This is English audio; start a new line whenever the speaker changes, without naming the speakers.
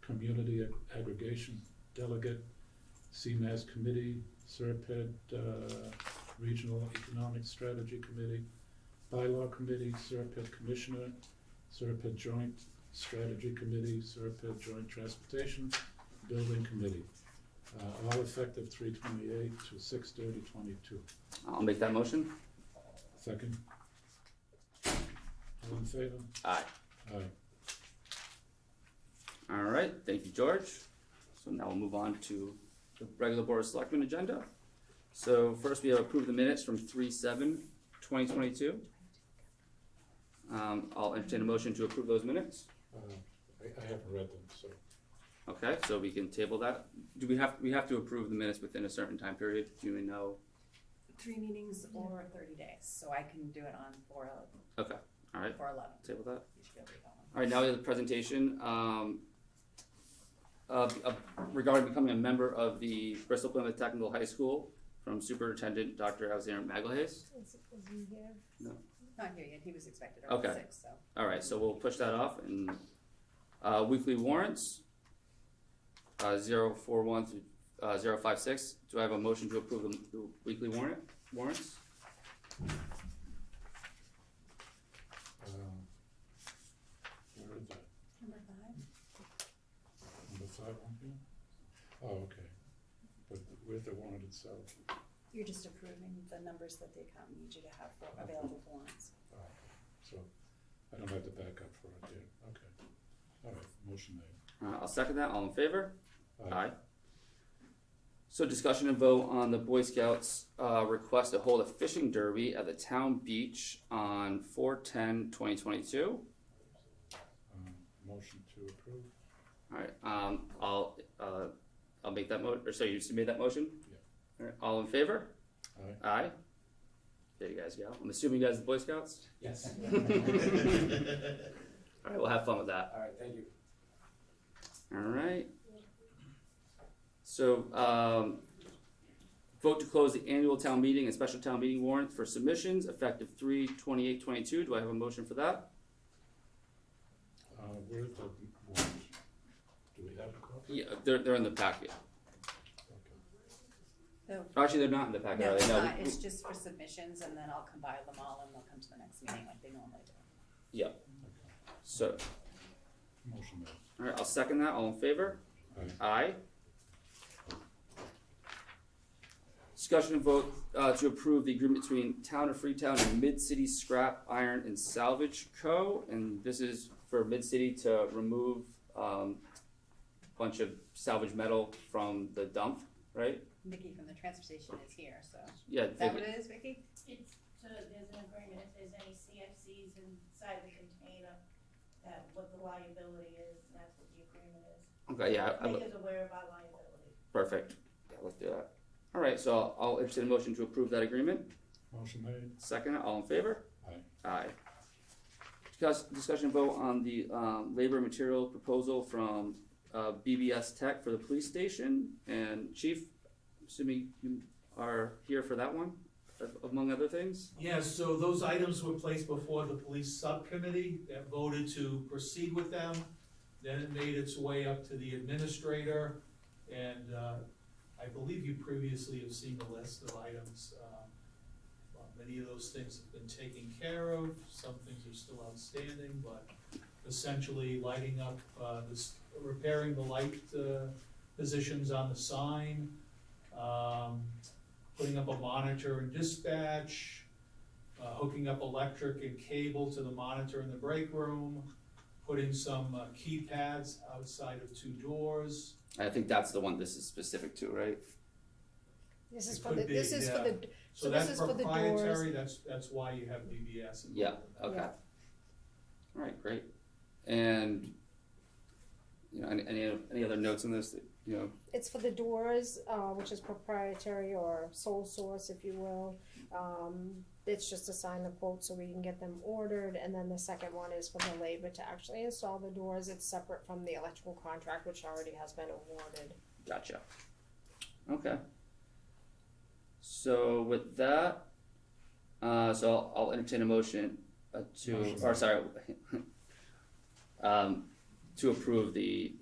Community Ag- Aggregation Delegate, CMAS Committee, Serped, uh, Regional Economic Strategy Committee, Bylaw Committee, Serpent Commissioner, Serpent Joint Strategy Committee, Serpent Joint Transportation Building Committee. Uh, all effective three twenty-eight to six thirty twenty-two.
I'll make that motion.
Second? All in favor?
Aye.
Aye.
All right, thank you, George. So now we'll move on to the regular Board of Selectmen agenda. So first, we have approved the minutes from three seven twenty twenty-two. Um, I'll entertain a motion to approve those minutes.
Uh, I, I haven't read them, so.
Okay, so we can table that. Do we have, we have to approve the minutes within a certain time period? Do we know?
Three meetings or thirty days, so I can do it on four,
Okay, all right,
four eleven,
table that.
you should be able to go on.
All right, now we have the presentation, um, of- of- regarding becoming a member of the Bristol Plymouth Technical High School from Superintendent Dr. Alexander Magalhaes.
Is, is he here?
Not here yet, he was expected around
Okay.
six, so.
All right, so we'll push that off and, uh, weekly warrants, uh, zero four one through, uh, zero five six. Do I have a motion to approve the the weekly warrant, warrants?
Um, Where is that?
Number five?
Number five on here? Oh, okay. But where's the warrant itself?
You're just approving the numbers that the account needs you to have for available warrants.
Oh, So I don't have to back up for it there. Okay. All right, motion made.
Uh, I'll second that, all in favor?
Aye.
So discussion and vote on the Boy Scouts, uh, request to hold a fishing derby at the town beach on four ten twenty twenty-two.
Um, motion to approve?
Alright, um, I'll, uh, I'll make that mo- or so you made that motion?
Yeah.
Alright, all in favor?
Aye.
Aye. There you guys go. I'm assuming you guys are the Boy Scouts?
Yes.
Alright, we'll have fun with that.
All right, thank you.
All right. So, um, vote to close the annual town meeting and special town meeting warrants for submissions effective three twenty-eight twenty-two. Do I have a motion for that?
Uh, where's the warrant? Do we have a copy?
Yeah, they're, they're in the packet.
Okay.
No,
Actually, they're not in the packet,
no,
are
it's
they?
not, it's just for submissions, and then I'll combine them all, and they'll come to the next meeting like they normally do.
So,
Motion made.
all right, I'll second that. All in favor?
Aye.
Aye. Discussion and vote, uh, to approve the agreement between Town of Freetown and Mid-City Scrap Iron and Salvage Co. And this is for Mid-City to remove, um, a bunch of salvage metal from the dump, right?
Nikki from the transfer station is here, so, is
Yeah,
that what
they-
it is, Vicky?
It's, so there's an agreement, if there's any CFCs inside the container, that what the liability is, and that's what the agreement is.
okay, Uh, yeah, I- I-
Make us aware of our liability.
perfect. Yeah, let's do that. All right, so I'll- I'll entertain a motion to approve that agreement.
Motion made.
Second, all in favor?
Aye.
Aye. Discuss, discussion vote on the, um, labor material proposal from, uh, BBS Tech for the police station, and Chief, assuming you are here for that one, a- among other things?
Yes, so those items were placed before the police subcommittee that voted to proceed with them. Then it made its way up to the administrator, and uh, I believe you previously have seen the list of items. Um, well, Many of those things have been taken care of, some things are still outstanding, but essentially lighting up, uh, this, repairing the light uh, positions on the sign, um, putting up a monitor and dispatch, uh, hooking up electric and cable to the monitor in the break room, putting some uh, keypads outside of two doors.
I think that's the one this is specific to, right?
This
It
is for
could
the,
be,
this is for the, So
So
this
that's
is for the
proprietary, that's, that's why you have BBS. involved
Yeah,
in that.
okay.
Yeah.
All right, great. And, you know, any, any, any other notes on this, that, you know,
it's for the doors, uh, which is proprietary or sole source, if you will. Um, it's just to sign the quote so we can get them ordered, and then the second one is for the labor to actually install the doors. It's separate from the electrical contract, which already has been awarded.
Gotcha. Okay. So with that, uh, so I'll, I'll entertain a motion uh, to,
Motion.
or sorry, um, to approve the